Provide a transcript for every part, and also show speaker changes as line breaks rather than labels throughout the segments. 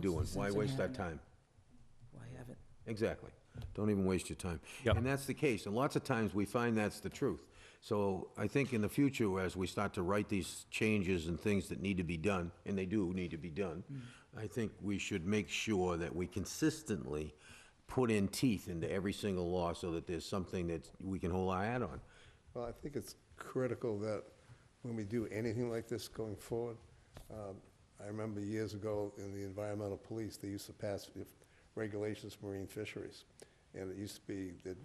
doing? Why
Citizens
waste our
inherit.
time?
Why have it?
Exactly. Don't even waste your time.
Yep.
And that's the case, and lots of times we find that's the truth. So I think in the future, as we start to write these changes and things that need to be done, and they do need to be done, I think we should make sure that we consistently put in teeth into every single law so that there's something that we can hold our hat on.
Well, I think it's critical that when we do anything like this going forward, um, I remember years ago in the environmental police, they used to pass if- regulations for marine fisheries. And it used to be, they'd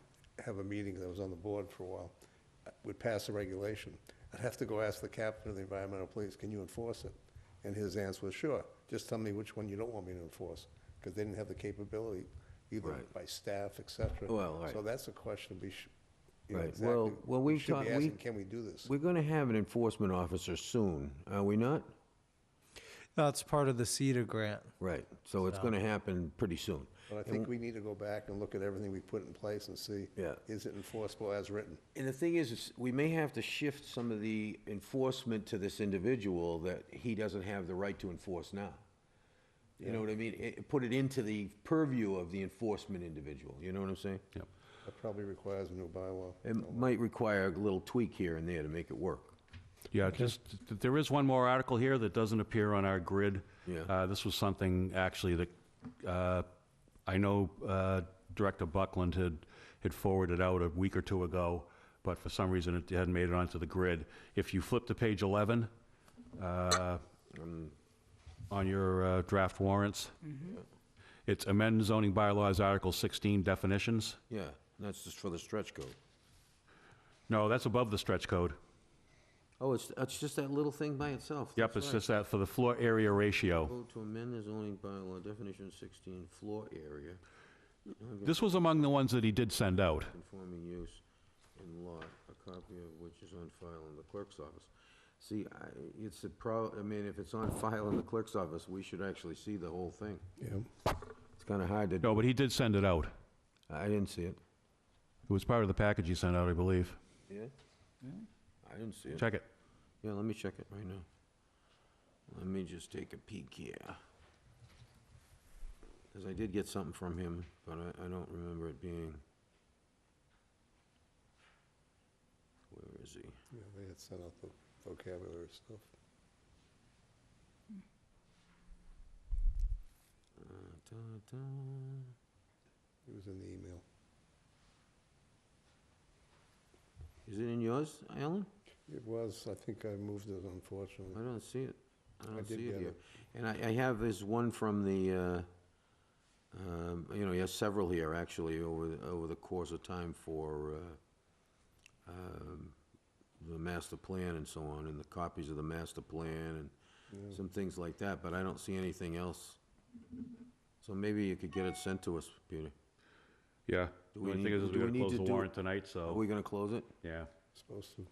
have a meeting, I was on the board for a while, uh, would pass a regulation. I'd have to go ask the captain of the environmental police, can you enforce it? And his answer was, sure, just tell me which one you don't want me to enforce, because they didn't have the capability, either
Right.
by staff, et cetera.
Well, right.
So that's a question we should, you know,
Right.
exactly.
Well- well,
We
we've
should be
talked- we-
asking, Can we do this?
We're gonna have an enforcement officer soon, are we not?
That's part of the CETA grant.
Right, so it's gonna happen pretty soon.
But I think we need to go back and look at everything we put in place and see,
Yeah.
is it enforceable as written?
And the thing is, is we may have to shift some of the enforcement to this individual that he doesn't have the right to enforce now. You know what I mean? It- put it into the purview of the enforcement individual, you know what I'm saying?
Yep.
That probably requires a new bylaw.
It might require a little tweak here and there to make it work.
Yeah, just, th- there is one more article here that doesn't appear on our grid.
Yeah.
Uh, This was something, actually, that uh, I know uh, Director Buckland had, had forwarded out a week or two ago, but for some reason it hadn't made it onto the grid. If you flip to page 11 uh,
Um,
on your uh, draft warrants,
Mm-hmm.
it's amend zoning bylaws, Article 16 definitions.
Yeah, that's just for the stretch code.
No, that's above the stretch code.
Oh, it's, it's just that little thing by itself.
Yep,
that's
it's
right.
just that for the floor area ratio.
Vote to amend the zoning bylaw definition sixteen floor area,
This was among the ones that he did send out.
conforming use in law, a copy of which is on file in the clerk's office. See, I, it's a pro, I mean, if it's on file in the clerk's office, we should actually see the whole thing.
Yeah.
It's kinda hard to,
No, but he did send it out.
I didn't see it.
It was part of the package he sent out, I believe.
Yeah? I didn't see it.
Check it.
Yeah, let me check it right now. Let me just take a peek here. Cause I did get something from him, but I, I don't remember it being. Where is he?
They had sent out the vocabulary stuff.
Uh, da-da.
It was in the email.
Is it in yours, Alan?
It was, I think I moved it
I
unfortunately.
don't see it. I don't
did
see it
get
here.
it.
And I, I have this one from the, uh, um, you know, he has several here, actually, over, the- over the course of time for uh, um, the master plan and so on, and the copies of the master plan and some things like that, but I don't see anything else. So maybe you could get it sent to us, Peter.
Yeah.
Do
The
we
only thing
need-
is, is
do
we
we
gotta
need
close
to
the
do-
warrant tonight,
Are
so,
we gonna close it?
yeah.
Supposed to.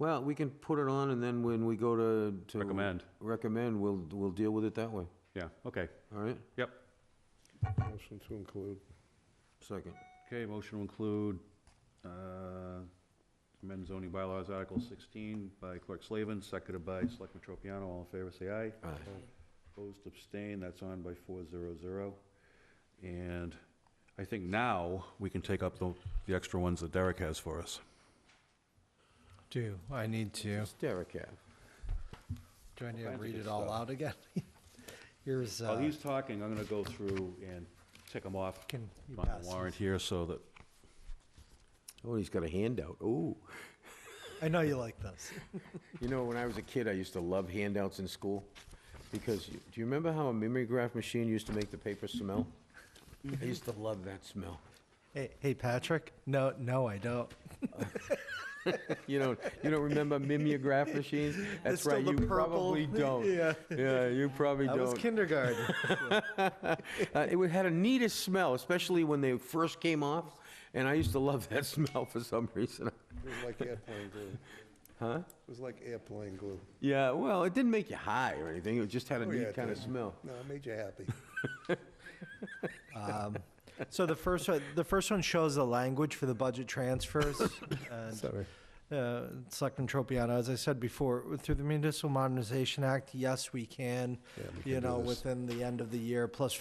Well, we can put it on, and then when we go to. to
Recommend.
Recommend, we'll, we'll deal with it that way,
Yeah, okay.
all right?
Yep.
Motion to include.
Second.
Okay, motion to include, uh, amend zoning bylaws, Article 16 by Clerk Slavin, seconded by Selectman Tropiano. All in favor, say aye.
Aye.
Opposed, abstain. that's on by four zero zero. And I think now we can take up the, the extra ones that Derek has for us.
Do, I need to,
It's Derek Ave.
do I need to
kinds of
read
good
it all
uh,
stuff.
out again? Here's,
Oh,
While
uh,
he's talking, I'm gonna go through and tick them off
can you
on
pass
the warrant here so that,
Oh, he's got a handout. Ooh.
these? I know you like this.
You know, when I was a kid, I used to love handouts in school because you, do you remember how a mimeograph machine used to make the paper smell? I used to love that smell.
Hey, hey, Patrick? No, no, I don't.
You don't, you don't remember mimeograph machines? That's
still
right,
the
you
purple-
probably don't.
Yeah.
Yeah, you probably
That was
don't.
kindergarten.
Uh, It had a neatest smell, especially when they first came off, and I used to love that smell for some reason.
It was like airplane glue. Huh? It was like airplane glue.
Yeah, well, it didn't make you high or anything, it just had a
Oh, yeah,
neat
it
kind of
did.
smell.
No, it made you happy.
Um, So the first one, the first one shows the language for the budget transfers. and,
Sorry.
uh, Selectman Tropiano, as I said before, through the Municipal Modernization Act, yes, we can,
Yeah, we can
you
do
know,
this.
within the end of the year, plus